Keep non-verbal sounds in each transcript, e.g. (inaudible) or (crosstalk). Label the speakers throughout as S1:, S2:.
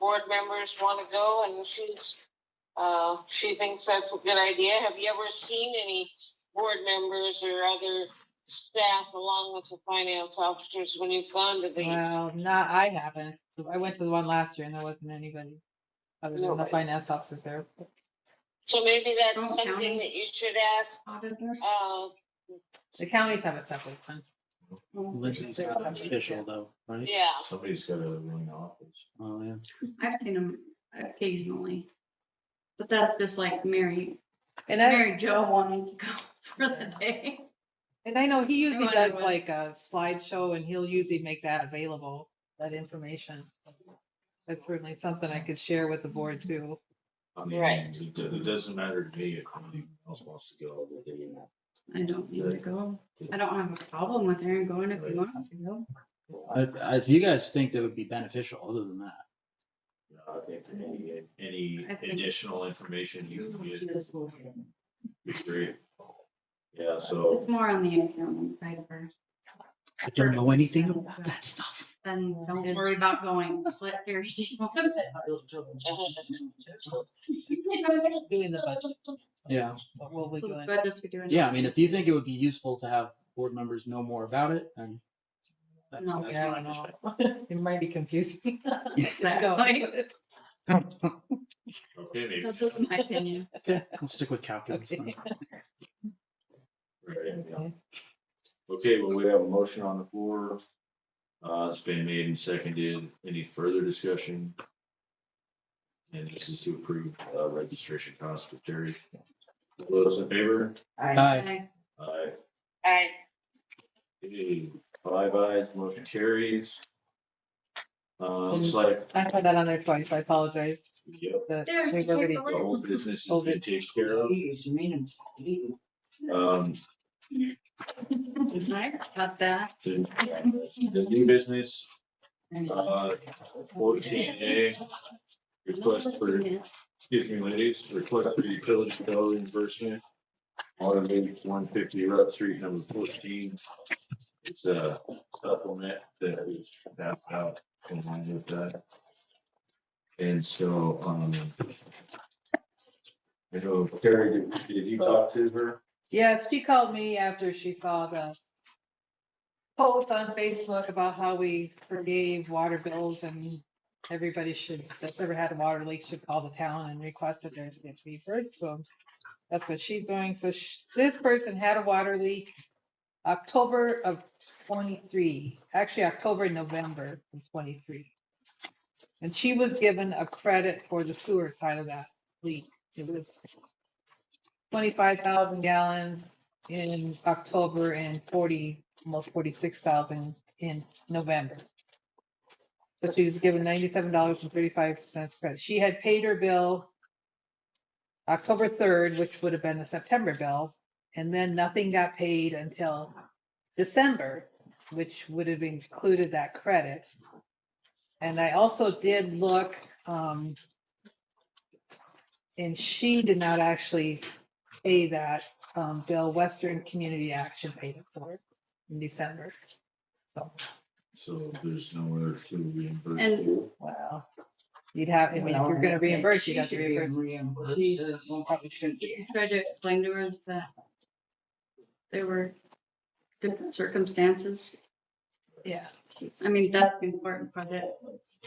S1: board members want to go and she's, uh, she thinks that's a good idea. Have you ever seen any board members or other staff along with the finance officers when you've gone to these?
S2: Well, not, I haven't. I went to the one last year and there wasn't anybody other than the
S1: Nobody.
S2: finance officers there.
S1: So maybe that's
S3: Oh,
S1: something
S3: county.
S1: that you should ask,
S3: Auditor?
S1: uh,
S2: The counties have a separate one.
S4: Lindsay's not official though,
S5: (laughs)
S4: right?
S1: yeah. (laughs)
S5: Somebody's got a running office.
S4: Oh, yeah.
S3: I've seen them occasionally. But that's just like Mary,
S2: And I,
S3: Mary Jo wanting to go (laughs) for the day.
S2: and I know he usually
S3: wanna
S2: does
S3: go in.
S2: like a slideshow and he'll usually make that available, that information. That's certainly something I could share with the board too.
S5: I mean,
S1: Right.
S5: It do- it doesn't matter to me if anyone else wants to go. but they-
S3: I don't need to go. I don't have a problem with Aaron going if he wants to go.
S4: I- I- If you guys think that would be beneficial, other than that,
S5: you know, I think Any any
S3: I think-
S5: additional information you can get, is great. Yeah, so
S3: It's more on the accounting side first.
S4: I don't know anything about that stuff.
S3: Then don't worry about going. Just let Mary (laughs) deal with it.
S2: Doing the budget.
S4: Yeah.
S2: What will we
S3: So
S2: doing?
S3: good that you're doing.
S4: Yeah, I mean, if you think it would be useful to have board members know more about it, then. that's-
S3: No,
S4: that's
S2: yeah,
S4: my
S2: no.
S4: perspective.
S2: (laughs) It might be confusing.
S3: (laughs)
S4: (laughs)
S3: Exactly.
S5: okay, maybe.
S3: That's just my opinion.
S4: Okay, I'll stick with calculus.
S3: (laughs)
S4: then.
S5: Right, yeah. Okay, well, we have a motion on the floor. Uh, it's been made and seconded. Any further discussion? And this is to approve, uh, registration costs for Terry. All Those in favor?
S4: (laughs) Hi,
S5: Aye.
S1: I,
S5: Okay, Five ayes, motion carries. Um, it's like,
S2: (laughs) I put that on there twice. I apologize.
S5: yep,
S2: that
S3: There's
S2: we've
S3: the
S2: already-
S5: the whole business has
S2: Hold
S5: been
S2: it.
S5: taken care of. Um,
S3: I got that.
S5: the the new business, uh, fourteen A. Request for Excuse me, ladies, request for utility bill reimbursement. Automated one fifty Route Street, number fourteen. It's a supplement that we passed out in line with that. And so, um. I know, Terry, did, did you talk to her?
S2: Yes, she called me after she saw the post on Facebook about how we forgave water bills and everybody should, that's ever had a water leak should call the town and request that there's a fee first, so that's what she's doing. So sh- this person had a water leak October of twenty-three, actually October, November of twenty-three. And she was given a credit for the sewer side of that leak. It was twenty-five thousand gallons in October and forty, almost forty-six thousand in November. So she was given ninety-seven dollars and thirty-five cents credit. She had paid her bill October third, which would have been the September bill, and then nothing got paid until December, which would have included that credit. And I also did look, um, and she did not actually pay that um, bill. Western Community Action paid it for it in December. So,
S5: So there's nowhere to reimburse.
S3: And-
S5: you.
S2: well, you'd have, I mean, if you're gonna reimburse, you have to reimburse. She probably shouldn't be.
S3: Tried to explain to her that there were different circumstances.
S2: Yeah,
S3: I mean, that's the important part. It was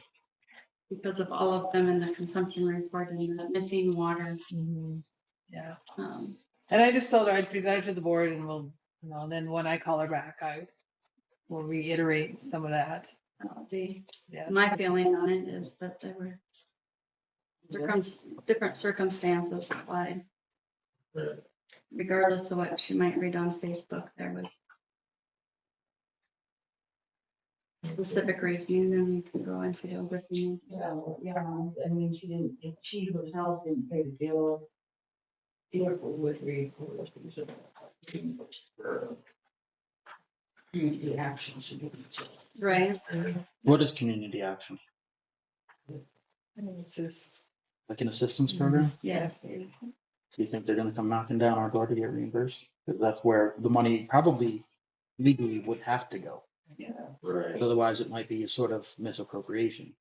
S3: because of all of them in the consumption report and the missing water.
S2: mhm, yeah.
S3: um,
S2: And I just told her I'd present it to the board and we'll, you know, then when I call her back, I will reiterate some of that.
S3: the-
S2: Yeah.
S3: My feeling on it is that there were circum- different circumstances applied,
S5: Right.
S3: regardless of what she might read on Facebook. There was specific reasoning and we can go into other things.
S6: Yeah, yeah, I mean, she didn't, if she herself didn't pay the bill. Therefore would reimburse. The action should be just.
S3: Right?
S4: what is community action?
S2: I mean, it's just-
S4: Like an assistance program?
S3: Yes. Mm-hmm.
S4: Do you think they're gonna come knocking down our door to get reimbursed? Because that's where the money probably legally would have to go.
S5: Right.
S4: Otherwise, it might be a sort of misappropriation.